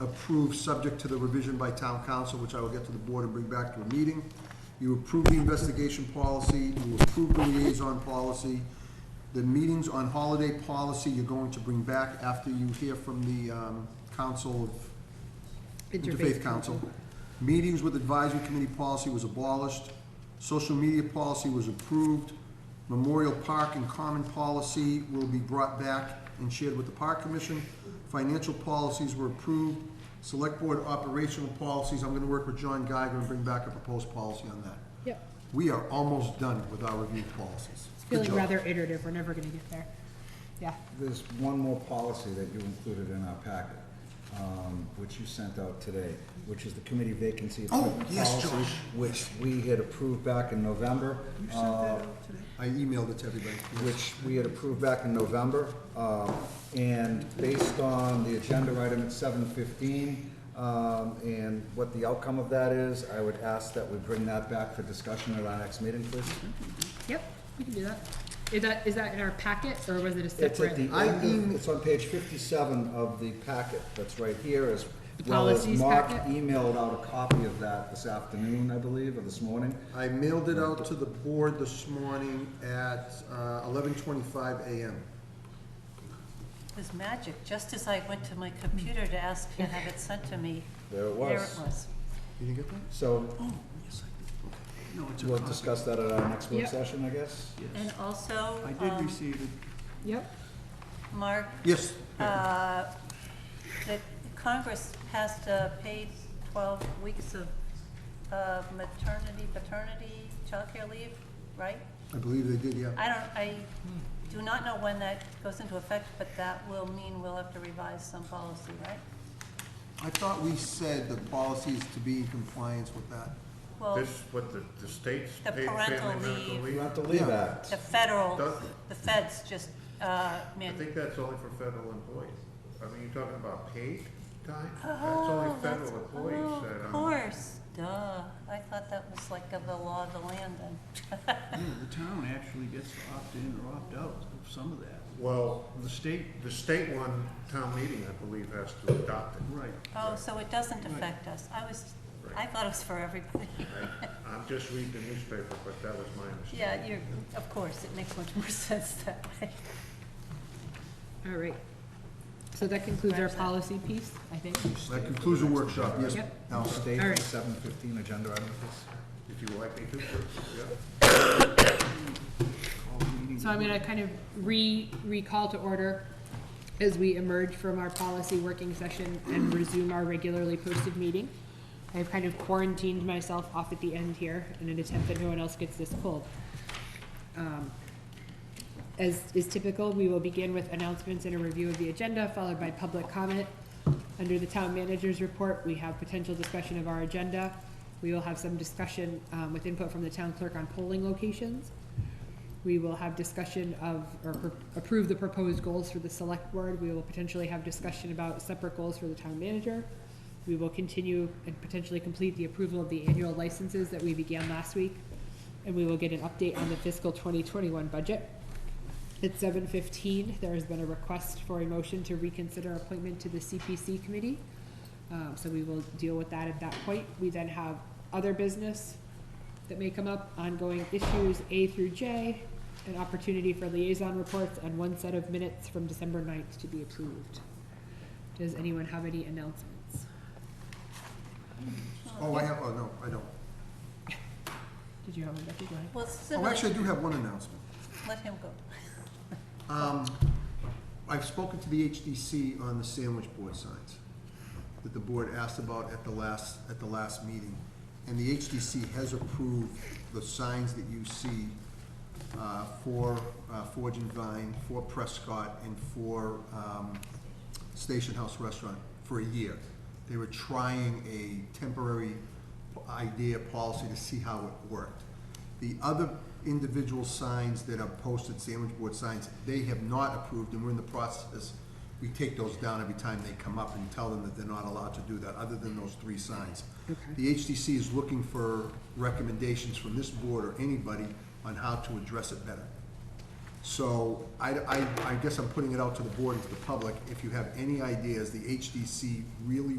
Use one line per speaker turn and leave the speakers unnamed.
approved, subject to the revision by town council, which I will get to the board and bring back to a meeting. You approve the investigation policy, you approve the liaison policy. The meetings on holiday policy, you're going to bring back after you hear from the um, council of Interfaith Council. Meetings with advisory committee policy was abolished. Social media policy was approved. Memorial Park and Common policy will be brought back and shared with the Park Commission. Financial policies were approved. Select Board operational policies, I'm gonna work with John Geiger and bring back a proposed policy on that.
Yep,
We are almost done with our review policies.
it's
Good
feeling
job.
rather iterative, we're never gonna get there. Yeah,
There's one more policy that you included in our packet, um, which you sent out today, which is the committee vacancy
Oh,
appointment
yes,
policy,
Josh.
which we had approved back in November. uh,
I emailed it to everybody.
which we had approved back in November. um, And based on the agenda item at seven fifteen, um, and what the outcome of that is, I would ask that we bring that back for discussion at our next meeting, please.
yep, we can do that. Is that, is that in our packet, or was it a
It's at the
separate?
end, of- it's on page fifty-seven of the packet that's right here, as
The
well as
policies
Mark
packet?
emailed out a copy of that this afternoon, I believe, or this morning.
I mailed it out to the board this morning at uh, eleven twenty-five AM.
It was magic, just as I went to my computer to ask to have it sent to me.
There it
There
was.
it was.
You didn't get that?
So
Oh,
No, it's a
we'll
copy.
discuss that at our next work
Yep.
session, I guess.
And
Yes.
also,
I did
um,
receive it.
Yep,
Mark,
Yes,
uh, that Congress passed a paid 12 weeks of uh, maternity, paternity, childcare leave, right?
I believe they did, yeah.
I don't, I do not know when that goes into effect, but that will mean we'll have to revise some policy, right?
I thought we said the policy is to be in compliance with that.
Well,
This, what, the, the state's
The
paid
parental
family medical
leave.
You
leave?
have to leave
Yeah.
that.
the federal,
Does-
the feds just uh,
I
mandated
think that's only for federal employees. I mean, you're talking about paid time? That's only
Oh, that's-
federal employees
oh,
that,
Of
um,
course, duh. I thought that was like of the law of the land then.
Yeah, the town actually gets to opt in or opt out of some of that.
well, the state, the state one town meeting, I believe, has to adopt it.
Right.
Oh, so it doesn't affect us. I was, I thought it was for everybody.
I'm just reading the newspaper, but that was my understanding.
Yeah, you're, of course, it makes much more sense that way.
all right. So that concludes our policy piece, I think.
That concludes the workshop, yes.
Yep.
Now,
State
All
for
right.
seven fifteen agenda item, please.
If you like me to, yeah.
So I'm gonna kind of re, recall to order as we emerge from our policy working session and resume our regularly posted meeting. I've kind of quarantined myself off at the end here in an attempt that no one else gets this cold. Um, As is typical, we will begin with announcements and a review of the agenda, followed by public comment. Under the town manager's report, we have potential discussion of our agenda. We will have some discussion um, with input from the town clerk on polling locations. We will have discussion of, or pro- approve the proposed goals for the select board. We will potentially have discussion about separate goals for the town manager. We will continue and potentially complete the approval of the annual licenses that we began last week. And we will get an update on the fiscal twenty twenty-one budget. At seven fifteen, there has been a request for a motion to reconsider appointment to the CPC committee. Um, so we will deal with that at that point. We then have other business that may come up, ongoing issues A through J, an opportunity for liaison reports, and one set of minutes from December 9th to be approved. Does anyone have any announcements?
oh, I have, oh, no, I don't.
Did you have one, Becky? Go ahead.
Well,
Oh,
so
actually, I do have one announcement.
let him go.
Um, I've spoken to the HDC on the sandwich board signs that the board asked about at the last, at the last meeting. And the HDC has approved the signs that you see uh, for uh, Forge and Vine, for Prescott, and for um, Station House Restaurant for a year. They were trying a temporary idea, policy to see how it worked. The other individual signs that are posted, sandwich board signs, they have not approved, and we're in the process, we take those down every time they come up and tell them that they're not allowed to do that, other than those three signs. The HDC is looking for recommendations from this board or anybody on how to address it better. So I, I, I guess I'm putting it out to the board and to the public, if you have any ideas, the HDC really